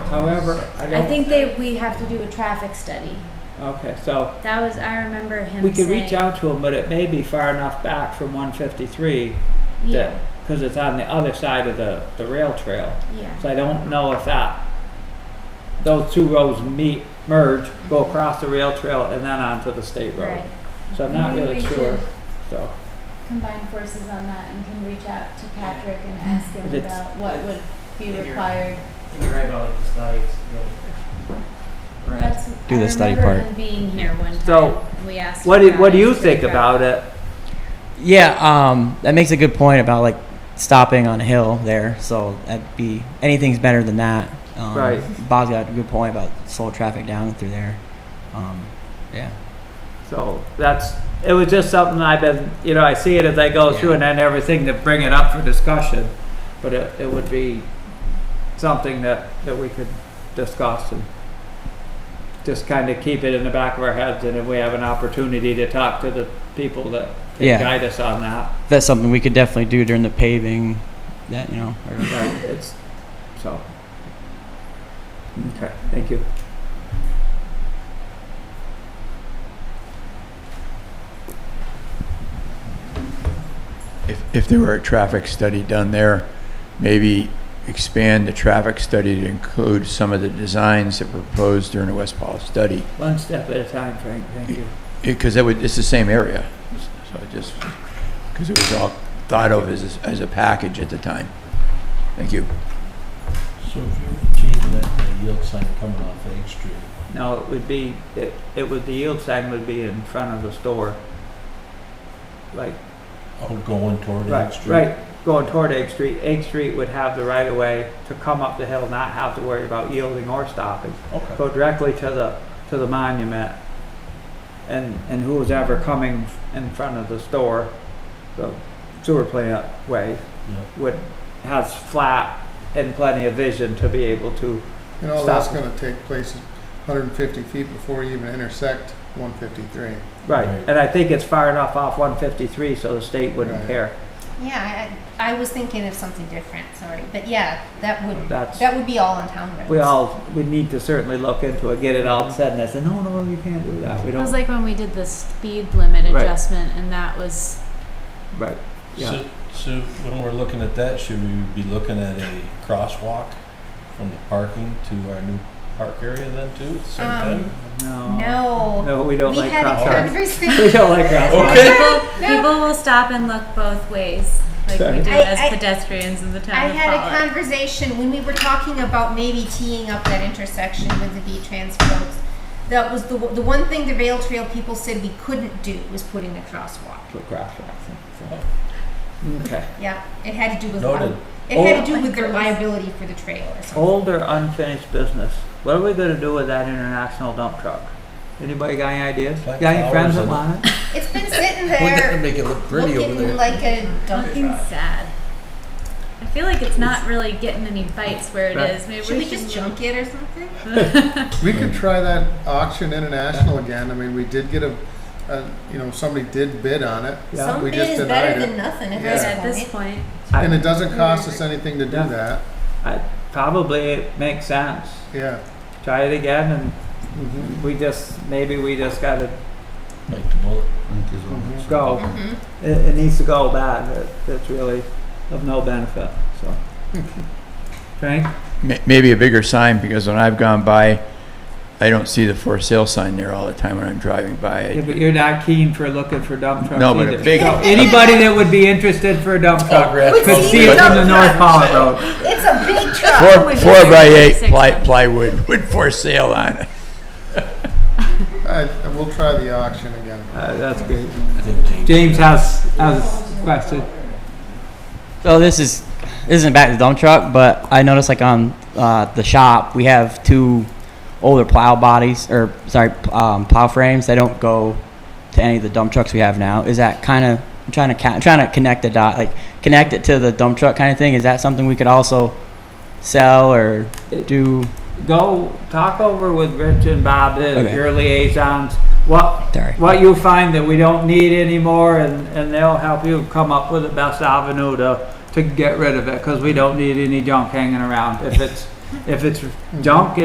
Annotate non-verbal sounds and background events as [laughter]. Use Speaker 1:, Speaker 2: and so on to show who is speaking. Speaker 1: However, I
Speaker 2: I
Speaker 1: don't,
Speaker 2: think they, we have to do a traffic study.
Speaker 1: okay, so
Speaker 2: That was, I remember him
Speaker 1: we
Speaker 2: saying.
Speaker 1: could reach out to them, but it may be far enough back from one fifty-three
Speaker 2: Yeah,
Speaker 1: that, because it's on the other side of the, the rail trail.
Speaker 2: yeah,
Speaker 1: So I don't know if that, those two roads meet, merge, go across the rail trail and then onto the state road.
Speaker 2: right. Mm-hmm.
Speaker 1: So I'm not
Speaker 3: Maybe
Speaker 1: really
Speaker 3: we
Speaker 1: sure,
Speaker 3: should
Speaker 1: so.
Speaker 3: combine forces on that and can reach out to Patrick and ask him
Speaker 1: That's-
Speaker 3: about what would be
Speaker 4: Figure.
Speaker 3: required.
Speaker 4: You're right about like the studies, you know. Right.
Speaker 3: That's,
Speaker 5: Do the
Speaker 3: I
Speaker 5: study
Speaker 3: remember
Speaker 5: part.
Speaker 3: him
Speaker 2: Being
Speaker 3: being
Speaker 2: here
Speaker 3: here.
Speaker 2: one time.
Speaker 1: So,
Speaker 2: We asked.
Speaker 1: What do,
Speaker 2: him
Speaker 1: what do you
Speaker 2: his
Speaker 1: think
Speaker 2: traffic.
Speaker 1: about it?
Speaker 5: Yeah, um, that makes a good point about like stopping on a hill there. So that'd be anything's better than that. Um,
Speaker 1: Right.
Speaker 5: Bob's got a good point about slow traffic down through there. Um, yeah.
Speaker 1: So that's, it was just something I've been, you know, I see it as I go through and then everything to bring it up for discussion. But it, it would be something that, that we could discuss and just kind of keep it in the back of our heads and if we have an opportunity to talk to the people that
Speaker 5: Yeah.
Speaker 1: can guide us on that.
Speaker 5: That's something we could definitely do during the paving. That you know. Or,
Speaker 1: Right, it's, so. Okay, thank you.
Speaker 6: If, if there were a traffic study done there, maybe expand the traffic study to include some of the designs that were proposed during the West Powell study.
Speaker 1: One step at a time, Frank, thank you.
Speaker 6: Because that would, it's the same area, so it just, because it was all thought of as, as a package at the time. Thank you.
Speaker 7: So if you're changing that uh, yield sign coming off Egg Street,
Speaker 1: No, it would be, it, it would, the yield sign would be in front of the store. Like,
Speaker 7: all going toward Egg
Speaker 1: right,
Speaker 7: Street?
Speaker 1: right, going toward Egg Street, Egg Street would have the right of way to come up the hill, not have to worry about yielding or stopping.
Speaker 7: Okay.
Speaker 1: Go directly to the, to the monument. And, and who was ever coming in front of the store, the sewer plant way, would, has flat and plenty of vision to be able to,
Speaker 8: And all that's
Speaker 1: Stop.
Speaker 8: gonna take place is 150 feet before you even intersect 153.
Speaker 1: right.
Speaker 7: Right.
Speaker 1: And I think it's far enough off one fifty-three, so the state wouldn't
Speaker 8: Right.
Speaker 1: care.
Speaker 3: Yeah, I, I was thinking of something different, sorry, but yeah, that would,
Speaker 1: That's-
Speaker 3: that would be all on town roads.
Speaker 1: we all we need to certainly look into it, get it all said, and I said, no, no, you can't do that. We
Speaker 3: It was
Speaker 1: don't.
Speaker 3: like when we did the speed limit
Speaker 1: Right.
Speaker 3: adjustment and that was
Speaker 1: Right. Yeah.
Speaker 7: So, so when we're looking at that, should we be looking at a crosswalk from the parking to our new park area then too? at the Same
Speaker 3: Um,
Speaker 7: time?
Speaker 1: No.
Speaker 3: No.
Speaker 1: No, we don't
Speaker 3: we
Speaker 1: like
Speaker 3: had a
Speaker 1: crosswalks. [laughs]
Speaker 3: conversation.
Speaker 1: We
Speaker 8: [laughs]
Speaker 1: don't like crosswalks.
Speaker 2: [laughs]
Speaker 7: Okay.
Speaker 2: People, people will stop and look both ways, like we
Speaker 1: Sorry.
Speaker 2: do
Speaker 3: I-
Speaker 2: as
Speaker 3: I-
Speaker 2: pedestrians in the
Speaker 3: I
Speaker 2: town of
Speaker 3: had a
Speaker 2: Pollock.
Speaker 3: conversation when we were talking about maybe teeing up that intersection with the V-Trans folks. That was the, the one thing the rail trail people said we couldn't do was putting a crosswalk.
Speaker 1: Put crosswalks. Okay.
Speaker 3: Yeah, it had to do with
Speaker 7: Noted.
Speaker 3: it had
Speaker 4: Oh
Speaker 3: to do with their liability for the trail or something.
Speaker 8: Oh.
Speaker 1: Old or unfinished business. What are we gonna do with that international dump truck? Anybody got any ideas?
Speaker 7: Plant
Speaker 1: Got any friends
Speaker 7: flowers
Speaker 1: that want
Speaker 7: in it.
Speaker 1: it?
Speaker 4: [laughs]
Speaker 3: It's been sitting
Speaker 4: Wouldn't that
Speaker 3: there
Speaker 4: make it look pretty over
Speaker 3: looking
Speaker 4: there?
Speaker 3: like a dumping
Speaker 2: Looking
Speaker 3: truck.
Speaker 2: sad. I feel like it's not really getting any bites where it
Speaker 1: Right.
Speaker 2: is. Maybe
Speaker 3: Should we just junk it or something?
Speaker 8: We could try that auction international again. I mean, we did get a, a you know, somebody did bid on it.
Speaker 1: Yeah.
Speaker 3: Some
Speaker 8: We
Speaker 3: bid
Speaker 8: just
Speaker 3: is
Speaker 8: denied
Speaker 3: better
Speaker 8: it.
Speaker 3: than nothing
Speaker 2: Right
Speaker 3: at
Speaker 2: at
Speaker 3: this
Speaker 2: this
Speaker 3: point.
Speaker 2: point.
Speaker 8: And
Speaker 1: I,
Speaker 8: it doesn't cost us anything to do
Speaker 1: Yeah.
Speaker 8: that.
Speaker 1: I probably it makes sense.
Speaker 8: Yeah.
Speaker 1: Try it again, and
Speaker 8: Mhm.
Speaker 1: we just maybe we just gotta
Speaker 7: Like the bullet.
Speaker 1: go.
Speaker 3: Mhm.
Speaker 1: It, it needs to go bad. It, it's really of no benefit. So, Frank.
Speaker 6: Ma- Maybe a bigger sign, because when I've gone by, I don't see the for sale sign there all the time when I'm driving by.
Speaker 1: Yeah, but you're not keen for looking for dump trucks
Speaker 6: No, but
Speaker 1: either.
Speaker 6: a big- Oh.
Speaker 1: So anybody that would be interested for a dump truck
Speaker 3: Would
Speaker 1: could
Speaker 3: see
Speaker 1: see
Speaker 3: the
Speaker 1: it from the
Speaker 3: dump
Speaker 1: North
Speaker 3: truck.
Speaker 1: Pollock Road.
Speaker 3: It's a big truck.
Speaker 6: Four, four by eight
Speaker 2: Six
Speaker 6: ply-
Speaker 2: months.
Speaker 6: plywood with for sale on it.
Speaker 8: I, we'll try the auction again.
Speaker 1: Uh, that's great.
Speaker 7: I think James.
Speaker 1: James has has a question.
Speaker 5: So this is this isn't back to the dump truck, but I noticed like on uh, the shop we have two older plow bodies or sorry um, plow frames. They don't go to any of the dump trucks we have now. Is that kind of I'm trying to ca- I'm trying to connect the dot like connect it to the dump truck kind of thing? Is that something we could also sell or do?
Speaker 1: Go talk over with Rich and Bob, the-
Speaker 5: Okay.
Speaker 1: your liaisons. What
Speaker 5: Sorry.
Speaker 1: what you find that we don't need anymore, and, and they'll help you come up with the best avenue to, to get rid of it, because we don't need any junk hanging around. If it's, If it's junk,